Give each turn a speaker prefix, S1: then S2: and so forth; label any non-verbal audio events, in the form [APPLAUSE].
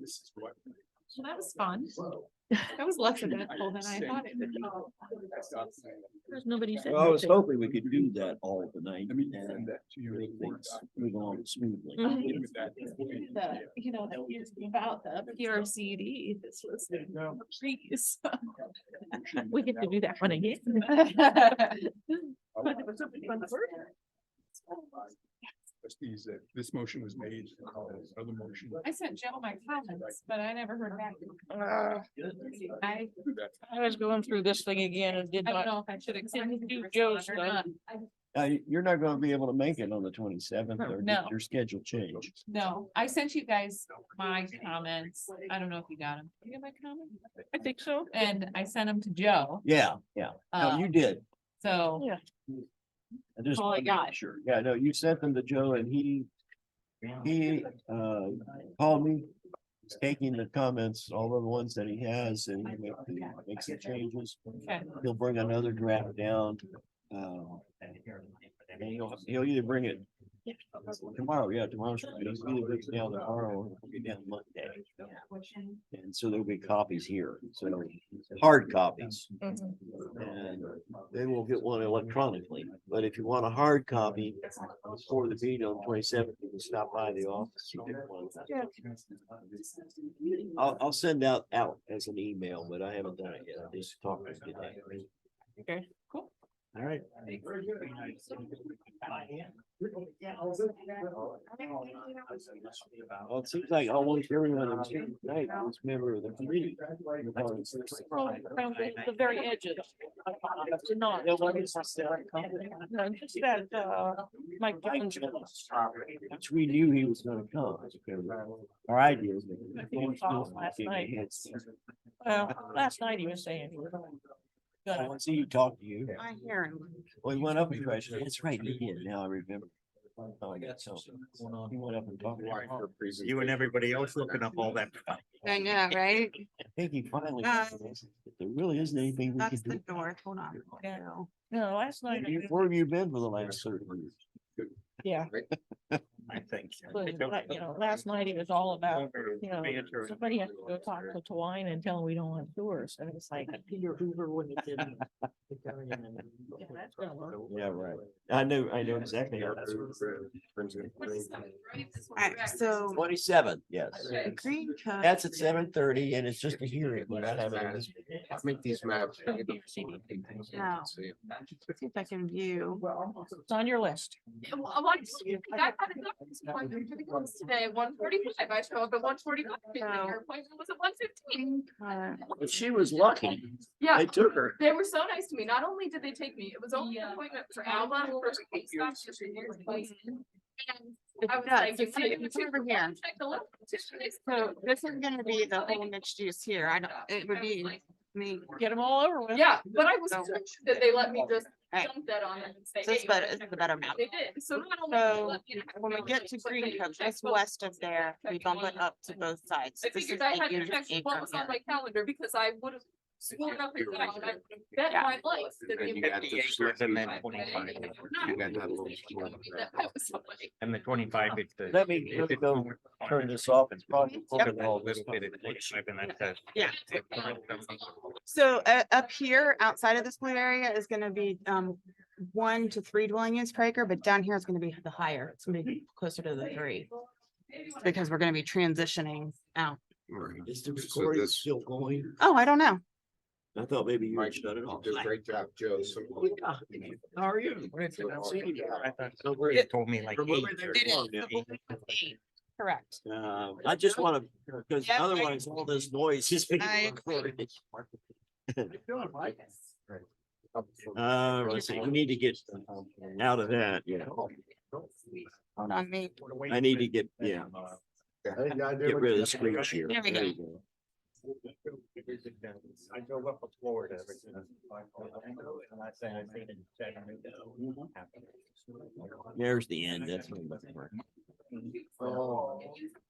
S1: this is what.
S2: Well, that was fun.
S1: Whoa.
S2: That was less eventful than I thought it would be.
S3: There's nobody said
S4: Well, I was
S3: nothing.
S4: hoping we could do that all tonight
S1: Let me send
S4: and
S1: that to you.
S4: make things move along smoothly.
S3: Mhm.
S2: Mm-hmm.
S1: With that.
S2: The, you know, the years about the PRCD, this was.
S1: No.
S2: [LAUGHS] Please.
S3: [LAUGHS] We get to do that one again.
S1: Trustees, uh, this motion was made, uh, other motion.
S2: [LAUGHS] I sent Joe my comments, but I never heard back.
S3: Uh,
S2: I,
S1: That-
S3: I was going through this thing again and did
S2: I don't
S3: not.
S2: know if I should extend
S3: Do
S2: to
S3: Joe's
S2: Joe's or not.
S4: Uh, you're not gonna be able to make it on the twenty seventh or did
S2: Oh, No.
S4: your schedule change.
S2: No, I sent you guys my um, comments. I don't know if you got them. You get my comment?
S3: I think so.
S2: And I sent them to Joe.
S4: Yeah, yeah. No,
S2: Uh, oh
S4: you did.
S2: so
S4: I just.
S2: all I
S4: wanted to make
S2: got.
S4: Sure. Yeah, no, you sent them to Joe and he, he, uh, called me. He's taking the comments, all of the ones that he has and he make the- makes the changes.
S2: Okay.
S4: He'll bring another draft down. Uh, and he'll, he'll either bring it tomorrow, yeah, tomorrow's, he'll either bring it down tomorrow or it'll be down Monday. And so there'll be copies here, so hard copies. um, And they will get one electronically, but if you want a hard copy for the meeting on twenty seventh, you can stop by the office. and get one. I'll, I'll send out, out as an email, but I haven't done it yet. I just talked to you today.
S3: Okay, cool.
S4: All right. Well, it seems like almost everyone on tonight was member of the committee.
S3: Well, around the, the very edges. Not. No, just that, uh, Mike Jones.
S4: Which we knew he was gonna come. Our idea was. that-
S3: I think he called last night. Well, last night he was saying. he was
S4: I
S3: gonna-
S4: want to see you talk to you.
S3: I hear him.
S4: Well, he went up and questioned. That's right, he did. Now I remember. Oh, I got so. He went up and talked. to
S1: Why
S4: her.
S1: her presentation-
S5: You and everybody else looking up all that.
S6: I know, right?
S4: I think he finally.
S6: Uh,
S4: realized that There really isn't anything we can
S6: That's the
S4: do.
S6: door. Hold on.
S3: Yeah.
S6: No.
S3: No, last night. I
S4: You-
S3: didn't-
S4: Where have you been for the last thirty years?
S3: Yeah,
S5: I think.
S3: but, like, you know, last night it was all about, you know, somebody has to go talk to Twine and tell him we don't want tours. And it's like. Peter Hoover when he did.
S4: Yeah, right. I know, I know exactly.
S6: Alright, so
S4: Twenty seven, yes.
S6: the green code.
S4: That's at seven thirty and it's just a hearing. We're not having a dis-
S1: Make these maps.
S6: No. See if I can view.
S3: It's on your list.
S7: Yeah, well, I want to- I had a doctor's appointment for the girls today, one forty-five, I show up at one forty-five,
S6: No.
S7: your appointment was at one fifteen.
S6: Cut.
S4: But she was lucky.
S7: Yeah,
S4: took her.
S7: they were so nice to me, not only did they take me, it was only an appointment for Alma. for her case doctor, she was like-
S6: Mm-hmm.
S7: And I was
S6: Yeah,
S7: like,
S6: so
S7: "You
S6: see,
S7: might
S6: it's
S7: check
S6: over
S7: the
S6: here.
S7: lung, check the lung, check this."
S6: So this is gonna be the whole mixed use here. I don't, it would be me.
S3: Get them all over with.
S7: Yeah, but I was
S6: So-
S7: touched that they let me just
S6: Right.
S7: dump that on them and say.
S6: So it's
S7: "Hey,
S6: better,
S7: check
S6: it's the
S7: this."
S6: better map.
S7: They did, so not only. did they
S6: So
S7: let me have
S6: when we
S7: family,
S6: get to
S7: but they
S6: green code, just
S7: checked
S6: west of there, we bump it
S7: everyone.
S6: up to both sides.
S7: I
S6: This is
S7: figured I had to
S6: acres and
S7: check what
S6: acres
S7: was on
S6: here.
S7: my calendar because I would have sworn up and down, I would have bet
S6: Yeah.
S7: my life that
S5: And
S7: the.
S5: you got the slip and then 25. You got that little slip.
S7: That
S5: And the twenty-five, it's the.
S4: Let me, let me go turn this off. It's probably.
S5: Look at all this bit of 25 and that's that. [LAUGHS]
S6: Yeah.
S7: oh,
S6: So uh, up here, outside of this blue area is gonna be um one to three dwelling units per acre, but down here is gonna be the higher. It's gonna be closer to the three. Because we're gonna be transitioning out.
S4: Is the
S1: So
S4: recording
S1: this-
S4: still going?
S6: Oh, I don't know.
S4: I thought maybe you
S1: Mike,
S4: had shut it
S1: you
S4: off.
S1: did a great job, Joe. So-
S4: How are you?
S5: They told me like.
S4: Remember
S5: eight
S4: their phone
S5: or something.
S6: Correct.
S4: Uh, I just wanna, because
S6: Yep, I-
S4: otherwise all this noise is. being
S6: I agree.
S4: recorded. Uh, let's see, we need to get um, out of that, yeah.
S5: Oh,
S6: Hold on, me.
S4: I need to get, yeah,
S5: Uh,
S4: get rid of the screen share.
S6: There we go.
S4: go.
S5: I drove up to Florida. And I say, I think in January, no.
S4: There's the end, that's. what I'm looking for.